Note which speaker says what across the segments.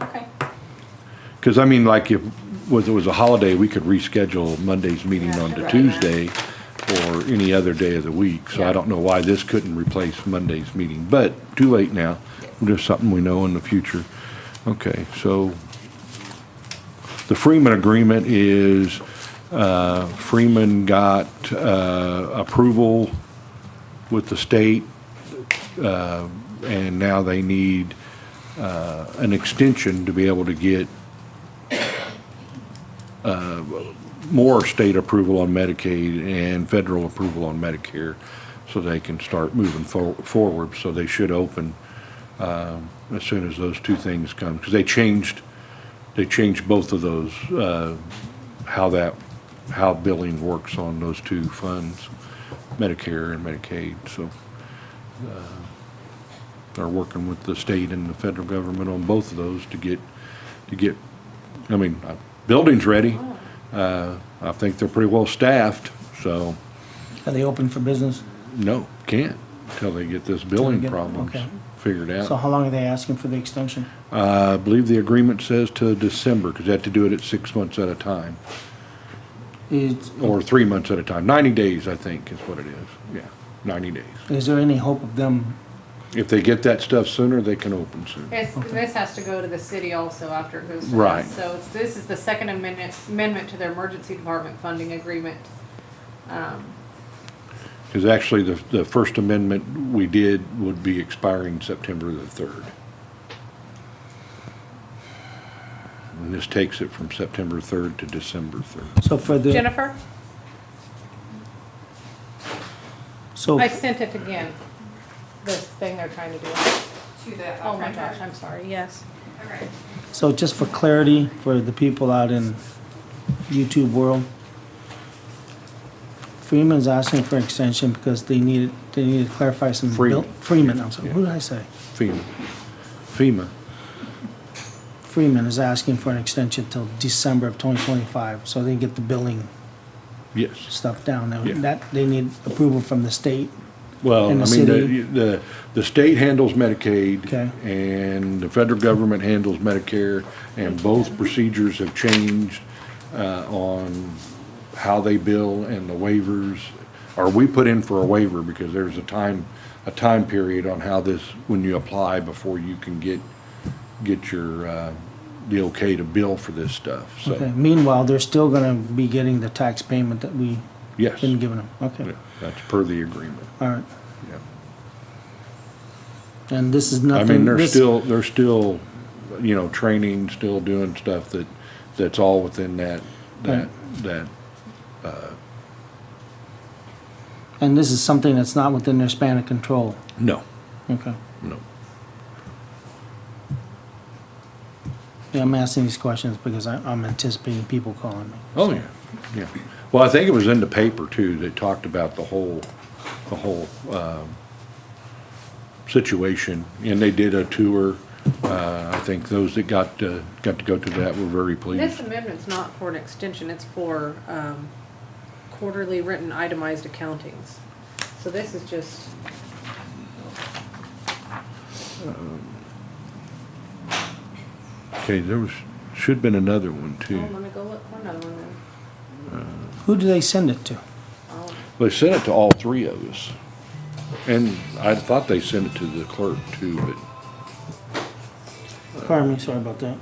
Speaker 1: Okay.
Speaker 2: Because I mean, like if, was, it was a holiday, we could reschedule Monday's meeting
Speaker 1: Yeah,
Speaker 2: on to
Speaker 1: right.
Speaker 2: Tuesday or any other day of the week. So
Speaker 1: Yeah.
Speaker 2: I don't know why this couldn't replace Monday's meeting, but too late now. Just something we know in the future. Okay, so the Freeman agreement is, uh, Freeman got, uh, approval with the state, uh, and now they need, uh, an extension to be able to get more state approval on Medicaid and federal approval on Medicare, so they can start moving for- forward, so they should open um, as soon as those two things come, because they changed, they changed both of those, uh, how that, how billing works on those two funds, Medicare and Medicaid, so. uh, They're working with the state and the federal government on both of those to get, to get, I mean, uh, building's ready. Uh, I think they're pretty well staffed, so,
Speaker 3: Are they open for business?
Speaker 2: no, can't, until they get this billing
Speaker 3: get-
Speaker 2: problems
Speaker 3: okay.
Speaker 2: figured out.
Speaker 3: So how long are they asking for the extension?
Speaker 2: Uh, I believe the agreement says to December, because they have to do it at six months at a time,
Speaker 3: Is,
Speaker 2: or three months at a time. Ninety days, I think, is what it is. Yeah, ninety days.
Speaker 3: is there any hope of them,
Speaker 2: If they get that stuff sooner, they can open soon.
Speaker 1: It's, this has to go to the city also after it goes to us.
Speaker 2: Right.
Speaker 1: So it's, this is the second amendment, amendment to their emergency department funding agreement.
Speaker 2: Because actually, the, the First Amendment we did would be expiring September the third. And this takes it from September third to December third.
Speaker 3: so for the,
Speaker 1: Jennifer,
Speaker 3: so,
Speaker 1: I sent it again, this thing they're trying to do.
Speaker 4: to the.
Speaker 1: Oh my gosh, I'm sorry, yes.
Speaker 4: Okay.
Speaker 3: so just for clarity, for the people out in YouTube world, Freeman's asking for extension because they needed, they needed to clarify some. bill-
Speaker 2: Freeman.
Speaker 3: Freeman, I'm sorry,
Speaker 2: Yeah.
Speaker 3: who did I say?
Speaker 2: FEMA, FEMA,
Speaker 3: Freeman is asking for an extension till December of twenty twenty-five, so they get the billing
Speaker 2: yes.
Speaker 3: stuff down there.
Speaker 2: Yeah.
Speaker 3: That, they need approval from the state.
Speaker 2: Well, I
Speaker 3: And the
Speaker 2: mean,
Speaker 3: city?
Speaker 2: the, the, the state handles Medicaid.
Speaker 3: Okay.
Speaker 2: And the federal government handles Medicare, and both procedures have changed, uh, on how they bill and the waivers. Or we put in for a waiver because there's a time, a time period on how this, when you apply before you can get, get your, uh, the okay to bill for this stuff,
Speaker 3: Okay,
Speaker 2: so,
Speaker 3: meanwhile, they're still gonna be getting the tax payment that we
Speaker 2: yes.
Speaker 3: been giving them,
Speaker 2: Yeah,
Speaker 3: okay,
Speaker 2: That's per the agreement,
Speaker 3: all right.
Speaker 2: yeah.
Speaker 3: And this is
Speaker 2: I
Speaker 3: nothing.
Speaker 2: mean, they're
Speaker 3: this-
Speaker 2: still, they're still, you know, training, still doing stuff that, that's all within that, that, that,
Speaker 3: And this is something that's not within their span of control,
Speaker 2: no,
Speaker 3: okay.
Speaker 2: no.
Speaker 3: Yeah, I'm asking these questions because I, I'm anticipating people calling me.
Speaker 2: Oh, yeah, yeah. Well, I think it was in the paper too, that talked about the whole, the whole, um, situation, and they did a tour. Uh, I think those that got, uh, got to go to that were very
Speaker 1: This
Speaker 2: pleased.
Speaker 1: amendment's not for an extension, it's for, um, quarterly written itemized accountings. So this is just,
Speaker 2: Okay, there was, should've been another one
Speaker 1: oh,
Speaker 2: too.
Speaker 1: let me go look for another one then.
Speaker 3: Who do they send it to?
Speaker 1: I'll-
Speaker 2: They sent it to all three of us. And I thought they sent it to the clerk too, but
Speaker 3: Pardon me, sorry about that.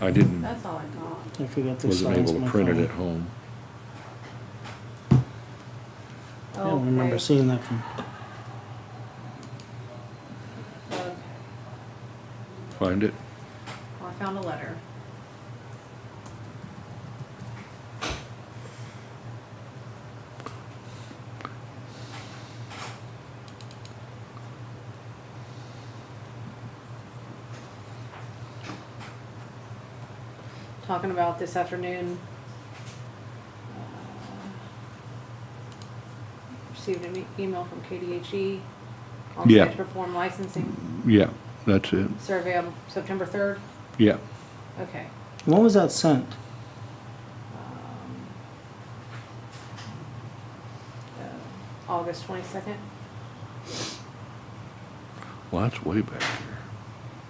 Speaker 2: I didn't,
Speaker 1: That's all I got.
Speaker 3: I forgot to
Speaker 2: wasn't
Speaker 3: silence
Speaker 2: able to
Speaker 3: my
Speaker 2: print it at
Speaker 3: phone.
Speaker 2: home.
Speaker 3: I don't remember
Speaker 1: Okay.
Speaker 3: seeing that from,
Speaker 1: Okay.
Speaker 2: Find it?
Speaker 1: Well, I found a letter. Talking about this afternoon. uh, Received an e- email from KDHE E on
Speaker 2: Yeah.
Speaker 1: transfer form licensing
Speaker 2: Yeah, that's it.
Speaker 1: survey on September third.
Speaker 2: Yeah.
Speaker 1: Okay.
Speaker 3: when was that sent?
Speaker 1: Um, August twenty-second. uh,
Speaker 2: Well, that's way back there.